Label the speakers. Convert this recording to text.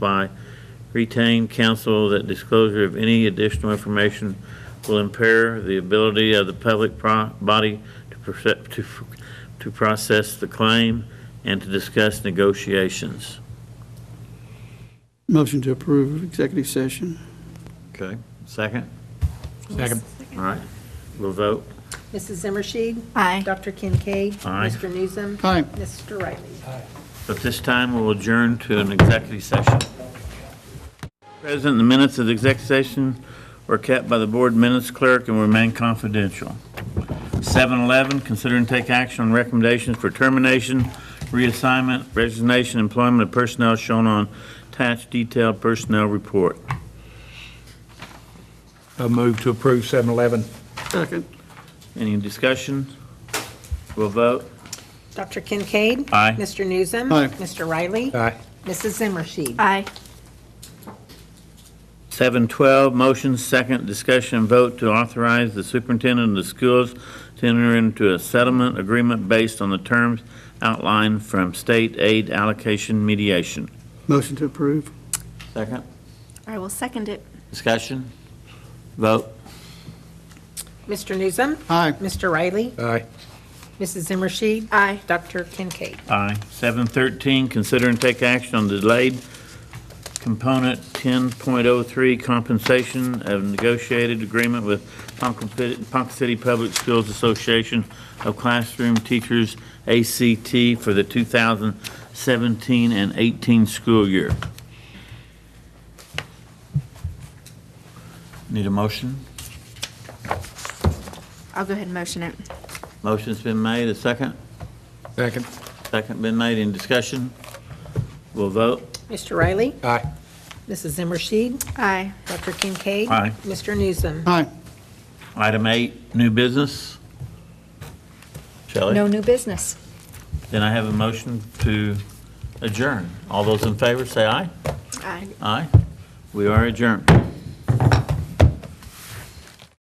Speaker 1: by retained counsel that disclosure of any additional information will impair the ability of the public pro- body to perce- to f- to process the claim and to discuss negotiations.
Speaker 2: Motion to approve executive session.
Speaker 1: Okay, second?
Speaker 3: Second.
Speaker 1: All right, we'll vote.
Speaker 4: Mrs. Zimmershed?
Speaker 3: Aye.
Speaker 4: Dr. Kincaid?
Speaker 1: Aye.
Speaker 4: Mr. Newsom?
Speaker 2: Aye.
Speaker 4: Mr. Riley?
Speaker 1: At this time, we'll adjourn to an executive session. President, the minutes of the executive session were kept by the board minutes clerk and remain confidential. 7-11, consider and take action on recommendations for termination, reassignment, resignation, employment of personnel shown on attached detailed personnel report.
Speaker 3: A move to approve 711.
Speaker 2: Second.
Speaker 1: Any discussion? We'll vote.
Speaker 4: Dr. Kincaid?
Speaker 1: Aye.
Speaker 4: Mr. Newsom?
Speaker 2: Aye.
Speaker 4: Mr. Riley?
Speaker 3: Aye.
Speaker 4: Mrs. Zimmershed?
Speaker 5: Aye.
Speaker 1: 712, motion, second, discussion, and vote to authorize the superintendent of the schools to enter into a settlement agreement based on the terms outlined from state aid allocation mediation.
Speaker 2: Motion to approve.
Speaker 1: Second.
Speaker 5: I will second it.
Speaker 1: Discussion, vote.
Speaker 4: Mr. Newsom?
Speaker 2: Aye.
Speaker 4: Mr. Riley?
Speaker 3: Aye.
Speaker 4: Mrs. Zimmershed?
Speaker 5: Aye.
Speaker 4: Dr. Kincaid?
Speaker 1: Aye. 713, consider and take action on delayed component 10.03 compensation of negotiated agreement with Ponca Pit- Ponca City Public Schools Association of Classroom Teachers, ACT, for the 2017 and 18 school year. Need a motion?
Speaker 5: I'll go ahead and motion it.
Speaker 1: Motion's been made, a second?
Speaker 3: Second.
Speaker 1: Second been made, in discussion? We'll vote.
Speaker 4: Mr. Riley?
Speaker 3: Aye.
Speaker 4: Mrs. Zimmershed?
Speaker 5: Aye.
Speaker 4: Dr. Kincaid?
Speaker 1: Aye.
Speaker 4: Mr. Newsom?
Speaker 2: Aye.
Speaker 1: Item eight, new business. Shelley?
Speaker 5: No new business.
Speaker 1: Then I have a motion to adjourn. All those in favor, say aye.
Speaker 5: Aye.
Speaker 1: Aye. We are adjourned.